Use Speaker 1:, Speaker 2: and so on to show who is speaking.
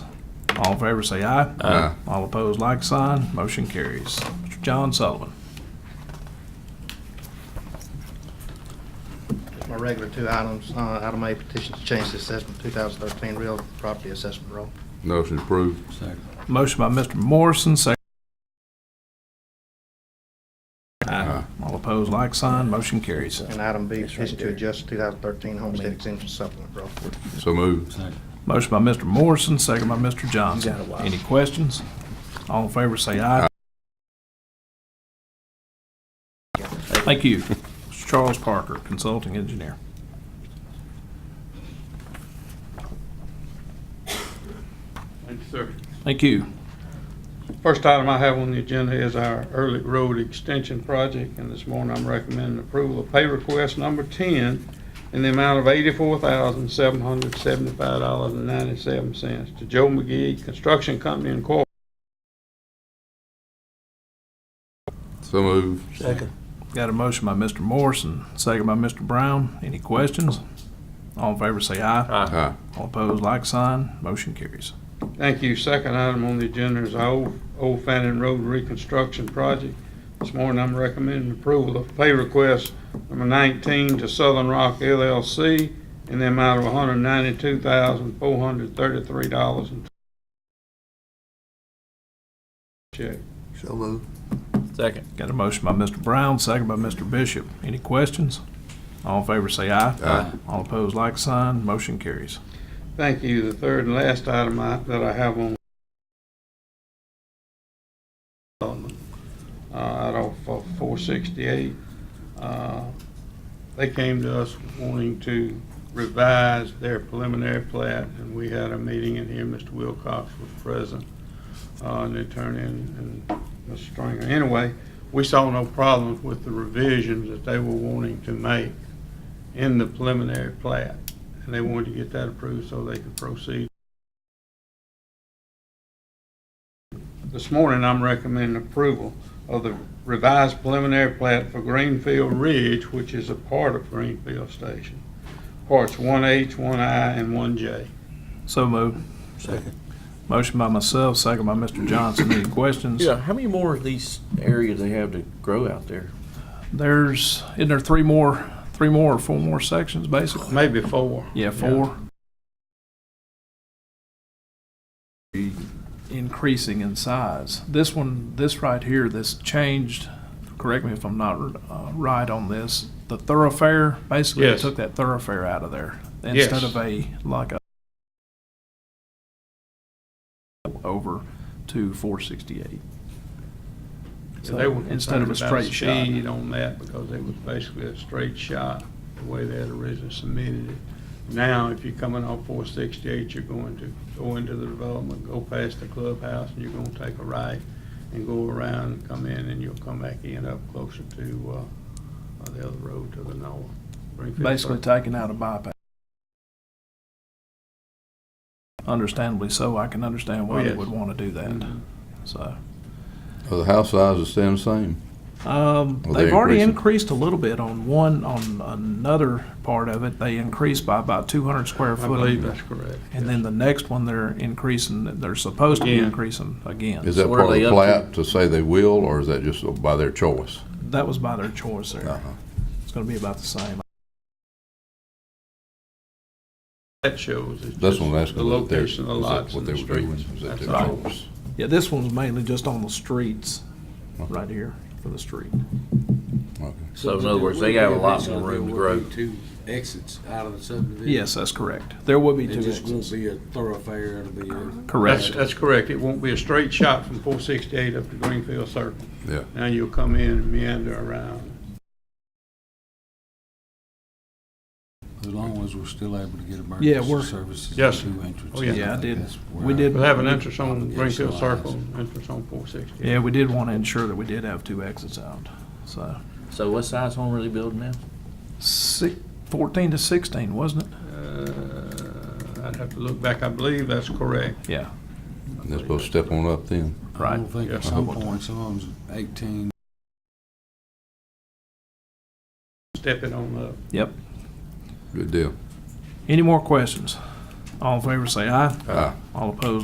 Speaker 1: All in favor, say aye.
Speaker 2: Aye.
Speaker 1: All opposed, like sign. Motion carries. Mr. John Sullivan.
Speaker 3: My regular two items, uh, item A, petition to change the assessment 2013 real property assessment roll.
Speaker 2: Motion approved.
Speaker 4: Second.
Speaker 1: Motion by Mr. Morrison, second.
Speaker 2: Aye.
Speaker 1: All opposed, like sign. Motion carries.
Speaker 3: And item B, petition to adjust 2013 homestead exemption supplement roll.
Speaker 2: So moved.
Speaker 4: Second.
Speaker 1: Motion by Mr. Morrison, second by Mr. Johnson.
Speaker 5: You got a while.
Speaker 1: Any questions? All in favor, say aye. Thank you. Mr. Charles Parker, Consulting Engineer.
Speaker 6: Thank you, sir.
Speaker 1: Thank you.
Speaker 6: First item I have on the agenda is our early road extension project, and this morning I'm recommending approval of pay request number ten in the amount of eighty-four thousand, seven hundred seventy-five dollars and ninety-seven cents to Joe McGee Construction Company Incorporated.
Speaker 2: So moved.
Speaker 5: Second.
Speaker 1: Got a motion by Mr. Morrison, second by Mr. Brown. Any questions? All in favor, say aye.
Speaker 2: Aye.
Speaker 1: All opposed, like sign. Motion carries.
Speaker 6: Thank you. Second item on the agenda is our Old- Old Fannin Road Reconstruction Project. This morning, I'm recommending approval of pay request number 19 to Southern Rock LLC in the amount of $192,433. Check.
Speaker 5: So moved.
Speaker 4: Second.
Speaker 1: Got a motion by Mr. Brown, second by Mr. Bishop. Any questions? All in favor, say aye.
Speaker 2: Aye.
Speaker 1: All opposed, like sign. Motion carries.
Speaker 6: Thank you. The third and last item I- that I have on development, uh, out of uh, 468, uh, they came to us wanting to revise their preliminary plat, and we had a meeting in here. Mr. Wilcox was present, uh, and the attorney and and Mr. Stringer. Anyway, we saw no problems with the revisions that they were wanting to make in the preliminary plat and they wanted to get that approved so they could proceed. This morning, I'm recommending approval of the revised preliminary plat for Greenfield Ridge, which is a part of Greenfield Station. Parts one H, one I, and one J.
Speaker 1: So moved.
Speaker 5: Second.
Speaker 1: Motion by myself, second by Mr. Johnson. Any questions?
Speaker 4: Yeah, how many more of these areas they have to grow out there?
Speaker 1: There's, isn't there three more, three more or four more sections, basically?
Speaker 6: Maybe four.
Speaker 1: Yeah, four. Increasing in size. This one, this right here, this changed, correct me if I'm not uh, right on this, the thoroughfare, basically they
Speaker 6: Yes.
Speaker 1: took that thoroughfare out of there.
Speaker 6: Yes.
Speaker 1: Instead of a, like a over to four sixty-eight.
Speaker 6: And they were
Speaker 1: Instead of a
Speaker 6: concerned about
Speaker 1: straight shot.
Speaker 6: speed on that because it was basically a straight shot, the way they had originally submitted it. Now, if you're coming off four sixty-eight, you're going to go into the development, go past the clubhouse, and you're gonna take a right and go around and come in, and you'll come back in up closer to, uh, uh, the other road to the north. Springfield
Speaker 1: basically
Speaker 6: Circle.
Speaker 1: taking out a bypass. Understandably so, I can understand why
Speaker 6: Oh,
Speaker 1: they
Speaker 6: yes. Mm-hmm.
Speaker 1: would want to do that, so.
Speaker 2: Are the house sizes staying the same?
Speaker 1: Um,
Speaker 2: Well,
Speaker 1: they've
Speaker 2: they're
Speaker 1: already
Speaker 2: increasing.
Speaker 1: increased a little bit on one, on another part of it, they increased by about two hundred square
Speaker 6: I
Speaker 1: foot.
Speaker 6: believe that's correct.
Speaker 1: And then the next one, they're increasing, they're supposed to be
Speaker 6: Again.
Speaker 1: increasing again.
Speaker 2: Is that
Speaker 4: So what are
Speaker 2: part of
Speaker 4: they
Speaker 2: the
Speaker 4: up
Speaker 2: plat to say they will, or is that just by their choice?
Speaker 1: That was by their choice there,
Speaker 2: Uh-huh.
Speaker 1: it's gonna be about the same.
Speaker 6: That shows it's
Speaker 2: That's
Speaker 6: just
Speaker 2: what I'm asking.
Speaker 6: the
Speaker 2: what they're-
Speaker 6: location of the
Speaker 2: is that
Speaker 6: lots
Speaker 2: What
Speaker 6: and
Speaker 2: they
Speaker 6: the
Speaker 2: were doing,
Speaker 6: streets.
Speaker 2: is that
Speaker 6: That's
Speaker 2: their
Speaker 6: all.
Speaker 2: choice?
Speaker 1: Yeah, this one's mainly just on the streets,
Speaker 2: Okay.
Speaker 1: right here, for the street.
Speaker 2: Okay.
Speaker 4: So in other words, they got a lot more room to grow.
Speaker 7: Two exits out of the subdivision.
Speaker 1: Yes, that's correct, there will be
Speaker 7: It
Speaker 1: two
Speaker 7: just won't
Speaker 1: exits,
Speaker 7: be a thoroughfare, it'll be a.
Speaker 1: correct.
Speaker 6: That's, that's correct. It won't be a straight shot from four sixty-eight up to Greenfield Circle.
Speaker 2: Yeah.
Speaker 6: Now you'll come in and meander around.
Speaker 7: As long as we're still able to get
Speaker 1: Yeah, we're-
Speaker 7: emergency services.
Speaker 6: Yes.
Speaker 7: and Two entrances.
Speaker 6: Oh, yeah.
Speaker 1: Yeah, I
Speaker 7: think
Speaker 1: did.
Speaker 7: that's where
Speaker 1: We
Speaker 7: I-
Speaker 1: did-
Speaker 6: We'll have an entrance on
Speaker 7: Yeah,
Speaker 6: Greenfield
Speaker 7: so I
Speaker 6: Circle,
Speaker 7: asked.
Speaker 6: entrance on four sixty.
Speaker 1: Yeah, we did want to ensure that we did have two exits out, so.
Speaker 4: So what size home are they building now?
Speaker 1: Six, fourteen to sixteen, wasn't it?
Speaker 6: Uh, I'd have to look back. I believe that's correct.
Speaker 1: Yeah,
Speaker 2: And they're supposed to step on up then.
Speaker 7: I
Speaker 1: right.
Speaker 7: don't think at
Speaker 6: Yeah.
Speaker 7: some point, some of them's eighteen,
Speaker 6: Step it on up.
Speaker 1: Yep.
Speaker 2: Good deal.
Speaker 1: Any more questions? All in favor, say aye.
Speaker 2: Aye.
Speaker 1: All opposed,